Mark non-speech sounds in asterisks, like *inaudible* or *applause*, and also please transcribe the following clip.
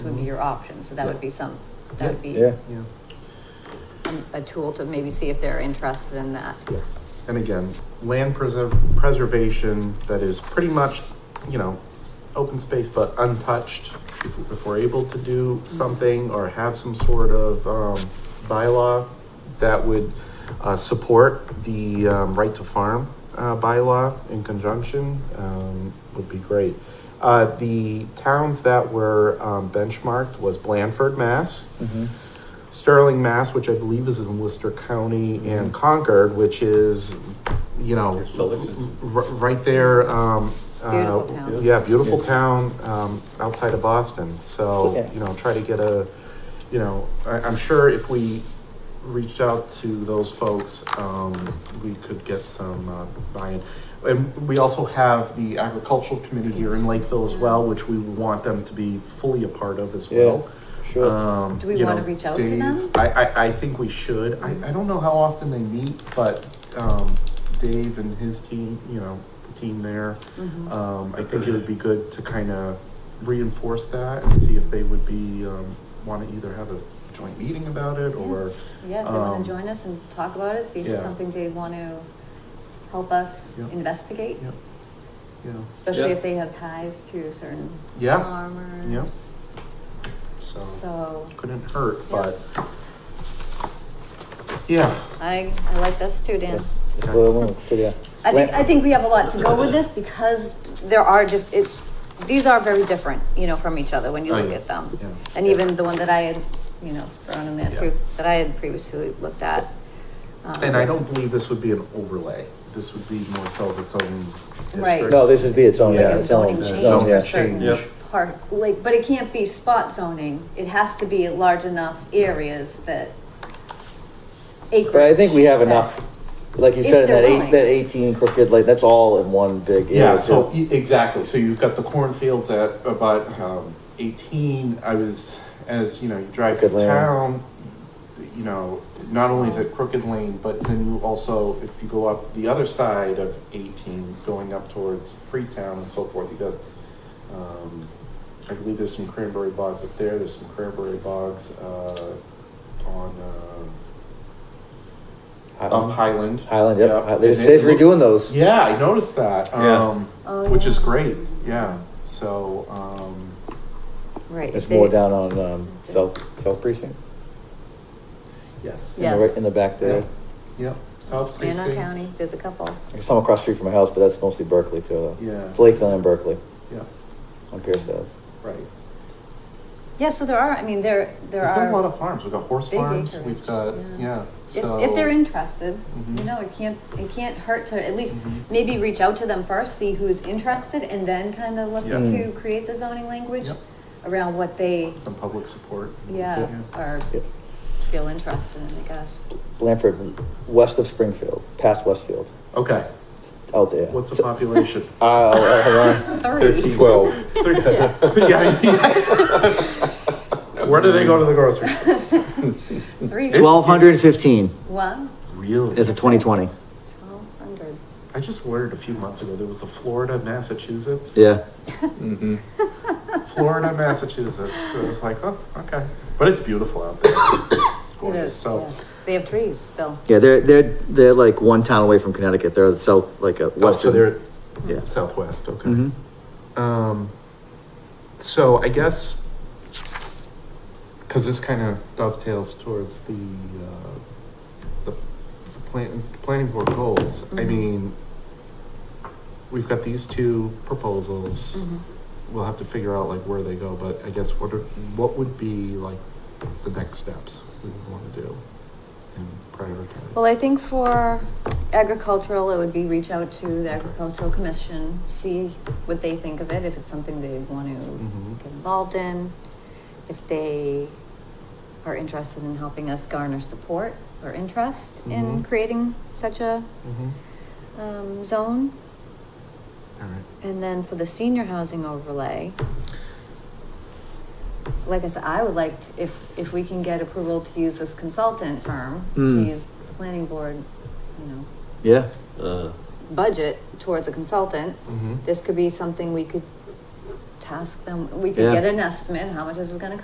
be your option, so that would be some, that would be Yeah, Yeah. um, a tool to maybe see if they're interested in that. And again, land preserv- preservation that is pretty much, you know, open space but untouched. If, if we're able to do something or have some sort of, um, bylaw that would, uh, support the, um, right to farm, uh, bylaw in conjunction, um, would be great. Uh, the towns that were, um, benchmarked was Blandford, Mass. mhm. Sterling, Mass, which I believe is in Worcester County, Mm-hmm. and Concord, which is, you know, It's still- r- right there. Um, uh, Beautiful town. Yeah, beautiful Yeah. town um, outside of Boston. So Yeah. you know, try to get a, you know, I, I'm sure if we reached out to those folks, um, we could get some uh, buy-in. And we also have the agricultural committee here in Lakeville as well, which we want them to be fully a part of as Yeah. well. sure. Um, Do we you wanna know, reach out to Dave- them? I, I, I think we should. I, I don't know how often they meet, but, um, Dave and his team, you know, the team there, Mm-hmm. um, I think it would be good to kind of reinforce that and see if they would be, um, want to either have a joint meeting about it or, Yeah, if they wanna Um, join us and talk about it, see if it's yeah. something they wanna help us Yeah. investigate, yeah, yeah, especially Yeah. if they have ties to certain Yeah. farmers. so, So, couldn't hurt, Yeah. but, yeah, I, I like this too, Dan. It's a little one, it's good, yeah. I think, I think we have a lot to go with *coughs* this because there are, dif- it, these are very different, you know, from each other when you Oh, look yeah. at them. Yeah. And even the one that I had, you know, thrown in there Yeah. too, that I had previously looked at. Um, And I don't believe this would be an overlay. This would be more so of its own Right. district. No, this would be its own, Like yeah, a its own, zoning its change own, for yeah. certain Yep. part, like, but it can't be spot zoning, it has to be large enough areas that acreage. But I think we have that- enough, like you If said, in they're that willing. eight, that eighteen crooked, like, that's all in one big Yeah, area so, too. y- exactly. So you've got the cornfields at about um, eighteen. I was, as you know, you drive through Crooked Lane. town, you know, not only is it Crooked Lane, but then you also, if you go up the other side of eighteen, going up towards Freetown and so forth, you got, um, I believe there's some cranberry bogs up there, there's some cranberry bogs, uh, on, uh, Um, Highland. Highland, yep, Hi- there's, And there's it look- redoing those. Yeah, I noticed that. Yeah. Um, Oh, which is yeah. great. Yeah. So, um, Right. There's if they- more down on, um, South, South Precinct, yes. in the, Yes. right- in the back there. Yep. Yep. South Banner Precinct. County, there's a couple. There's some across the street from my house, but that's mostly Berkeley too, though. Yeah. It's Lakeland and Berkeley Yeah. on Pierce Ave. Right. Yeah, so there are, I mean, there, there We've got a lot are, of farms. We've got horse big farms. acreage, We've got yeah. yeah. if, So if they're interested, you Mhm. know, it can't, it can't hurt to at least Mhm. maybe reach out to them first, see who's interested, and then kind of look Yeah. to create the zoning language Mm. Yep. around what they, some public support. yeah, are, Yep. feel interested in, I guess. Blanford, west of Springfield, past Westfield, Okay. out there. What's the So- population? Uh, Uh, hold on. Three. Twelve. Thirty- yeah. *laughs* yeah. *laughs* Where do they go to the grocery? store? *laughs* Three. Twelve hundred and fifteen One, Really? as of twenty twenty. twelve hundred. *laughs* I just learned a few months ago there was a Florida, Massachusetts. Yeah. Mm-hmm. Florida, Massachusetts. So it's like, oh, okay. But it's beautiful out there. *coughs* It Gorgeous. is, So, yes. They have trees still. Yeah, they're they're they're like one town away from Connecticut. They're south like a oh, so western. they're yeah. southwest. Okay. hmm Um, so I guess because this kind of dovetails towards the uh, the, the plan, planning board goals. I Mhm. mean, we've got these two proposals. Mhm. We'll have to figure out like where they go. But I guess what are, what would be like the next steps we would want to do and prioritize. Well, I think for agricultural, it would be reach out to the agricultural commission, see what they think of it, if it's something they want Mhm. to get involved in. If they are interested in helping us garner support or interest in Mm-hmm. Mhm. creating such a, mm-hmm. um, zone. All right. And then for the senior housing overlay, like I said, I would like, to- if, if we can get approval to use this consultant firm, to Mm. use the planning board, you know, Yeah. Uh, budget towards a consultant, Mm-hmm. this could be something we could task them, we could Yeah. get an estimate, how much this is gonna